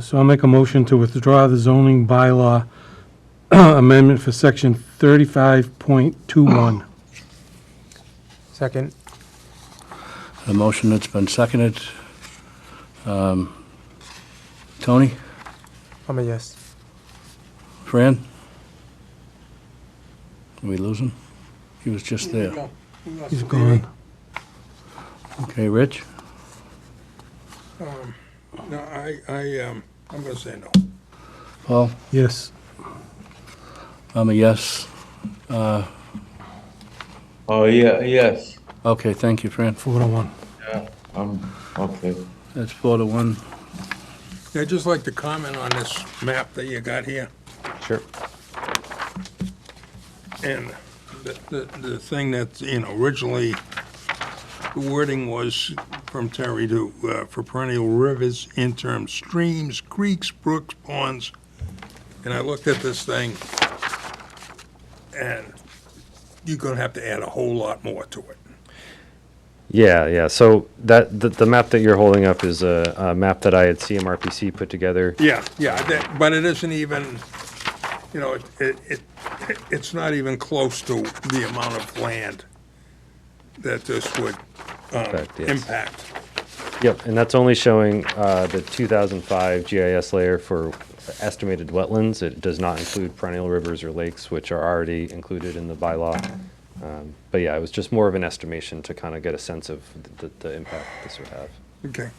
So I'll make a motion to withdraw the zoning bylaw amendment for section 35.21. Second. A motion that's been seconded. Um, Tony, I'm a yes. Fran? Did we lose him? He was just there. He's gone. Okay, Rich? No, I, I, um, I'm gonna say no. Paul? Yes. I'm a yes. Uh, Oh, yeah, yes, Okay, thank you, Fran. Four to one. yeah, um, okay. That's four to one. I'd just like to comment on this map that you got here. Sure. And the, the, the thing that, you know, originally, the wording was from Terry to, uh, for perennial rivers, interim streams, creeks, brooks, ponds. And I looked at this thing, and you're gonna have to add a whole lot more to it. Yeah, yeah. So that the, the map that you're holding up is a, a map that I had CMRPC put together. Yeah, yeah, that, but it isn't even, you know, it, it, it- it's not even close to the amount of land that this would, um, Impact, yes. impact. Yep, and that's only showing uh, the 2005 GIS layer for estimated wetlands. It does not include perennial rivers or lakes, which are already included in the bylaw. Um, but yeah, it was just more of an estimation to kind of get a sense of the, the impact this would have. Okay.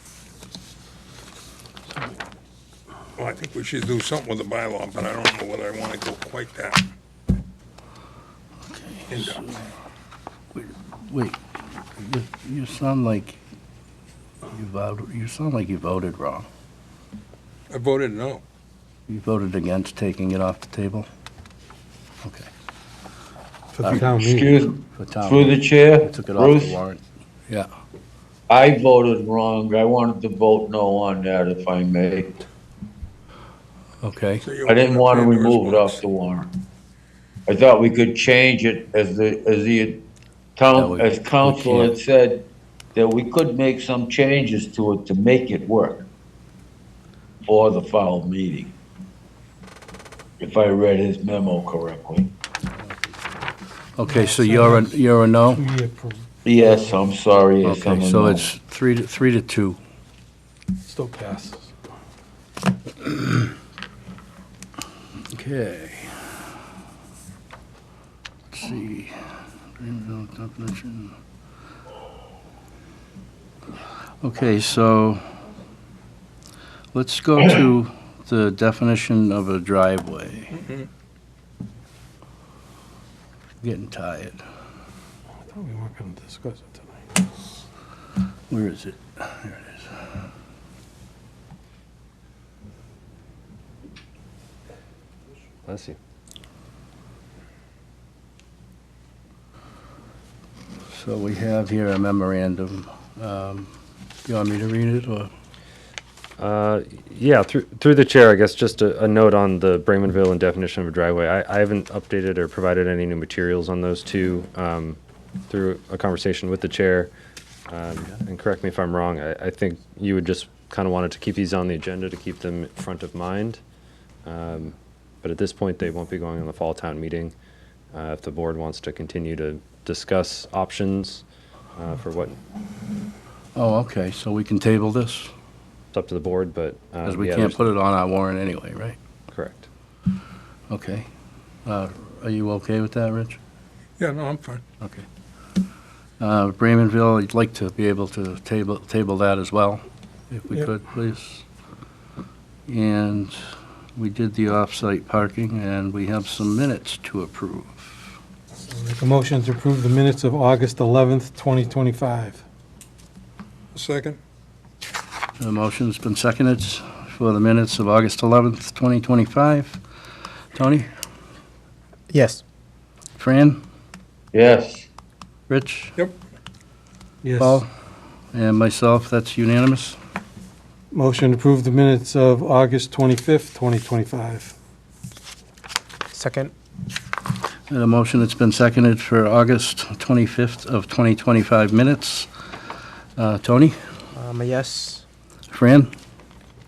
Well, I think we should do something with the bylaw, but I don't know whether I wanna go quite that. in depth. Wait, you- you sound like you voted, you sound like you voted wrong. I voted no. You voted against taking it off the table? Okay. For the town meeting. Excuse, For town through the meeting. chair, You Took it off the Bruce, warrant. Yeah. I voted wrong. I wanted to vote no on that, if I may. Okay, So you I didn't opened want to Pandora's remove it box. off the warrant. I thought we could change it as the, as the No, town, we- as we council can't. had said, that we could make some changes to it to make it work for the foul meeting, if I read his memo correctly. okay, so you're, a you're a no? We approve. Yes, I'm sorry. yes, I'm Okay, a so no. it's three, to three to two. Still passes. Okay. Let's see. Greenville definition. Okay, so let's go to the definition of a driveway. Getting tired. I thought we weren't going to discuss it tonight. Where is it? There it is. Bless you. So we have here a memorandum. Um, You want me to read it, or? Uh, Yeah, through, through the chair, I guess, just a, a note on the Bremenville and definition of a driveway. I, I haven't updated or provided any new materials on those two, um, through a conversation with the chair. Um, and correct me if I'm wrong, I, I think you would just kind of wanted to keep these on the agenda to keep them front of mind. Um, but at this point, they won't be going on the fall town meeting. Uh, if the board wants to continue to discuss options, uh, for what, Oh, okay, so we can table this? it's up to the board, but. uh, Because we yeah, can't there's- put it on our warrant anyway, right? Correct. Okay. Uh, Are you okay with that, Rich? Yeah, no, I'm fine. Okay. Uh, Bremenville, you'd like to be able to table, table that as well, if we Yep. could, please. And we did the off-site parking, and we have some minutes to approve. I'll Make a motion to approve the minutes of August 11th, 2025. Second? The motion's been seconded for the minutes of August 11th, 2025. Tony, Yes. Fran, Yes, Rich, Yes. Paul, and myself, that's unanimous. Motion to approve the minutes of August 25th, 2025. Second. And a motion that's been seconded for August 25th of 2025 minutes. Uh, Tony, I'm um, a yes. Fran,